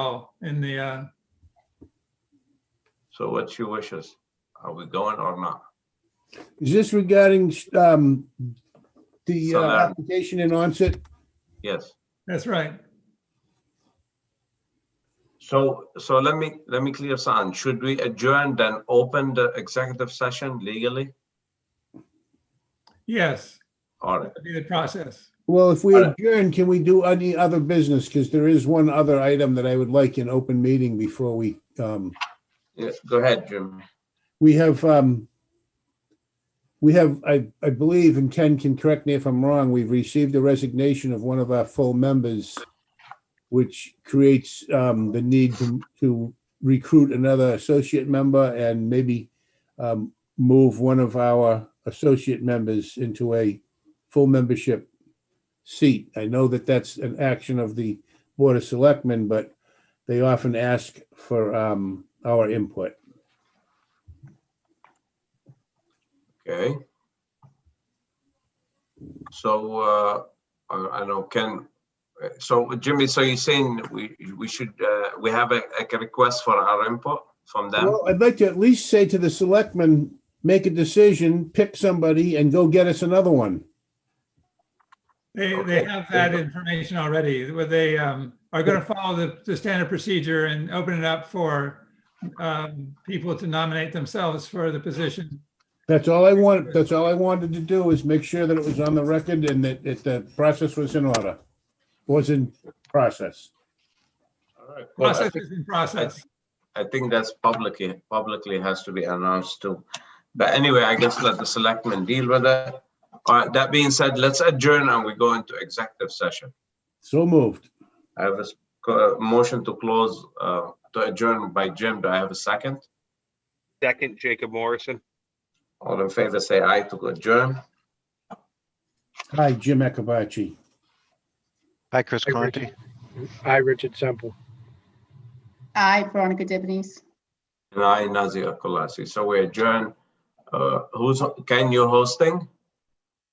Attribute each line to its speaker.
Speaker 1: well in the, uh,
Speaker 2: So what's your wishes? Are we going or not?
Speaker 3: Is this regarding um, the uh,
Speaker 2: Southern.
Speaker 3: application in onset?
Speaker 2: Yes.
Speaker 1: that's right.
Speaker 2: So, so let me, let me clear something. Should we adjourn then open the executive session legally?
Speaker 1: Yes,
Speaker 2: All right.
Speaker 1: that'd be the process.
Speaker 3: Well, if we
Speaker 2: All right.
Speaker 3: adjourn, can we do any other business? Because there is one other item that I would like in open meeting before we, um,
Speaker 2: Yeah, go ahead, Jim.
Speaker 3: we have, um, we have, I, I believe, and Ken can correct me if I'm wrong, we've received the resignation of one of our full members, which creates um, the need to, to recruit another associate member and maybe um, move one of our associate members into a full membership seat. I know that that's an action of the Board of Selectmen, but they often ask for um, our input.
Speaker 2: Okay. So, uh, I I know Ken, so Jimmy, so you're saying we, we should, uh, we have a, a request for our input from them?
Speaker 3: Well, I'd like to at least say to the selectmen, make a decision, pick somebody and go get us another one.
Speaker 1: They, they have that information already, where they um, are going to follow the, the standard procedure and open it up for um, people to nominate themselves for the position.
Speaker 3: That's all I want, that's all I wanted to do is make sure that it was on the record and that, that the process was in order. Was in process.
Speaker 2: All right. Well, I
Speaker 1: Process
Speaker 2: think-
Speaker 1: is in process.
Speaker 2: I think that's publicly, publicly has to be announced too. But anyway, I guess let the selectmen deal with it. All right, that being said, let's adjourn and we go into executive session.
Speaker 3: So moved.
Speaker 2: I have a s- co- uh, motion to close, uh, to adjourn by Jim. Do I have a second?
Speaker 4: Second, Jacob Morrison.
Speaker 2: All in favor, say aye to adjourn.
Speaker 3: Hi, Jim Akabachi.
Speaker 5: Hi, Chris
Speaker 6: Hi,
Speaker 5: Conti.
Speaker 6: Hi, Richard Semple.
Speaker 7: Aye, Veronica Debonese.
Speaker 2: And I, Nazir Kolasi. So we adjourn. Uh, who's, Ken, you hosting?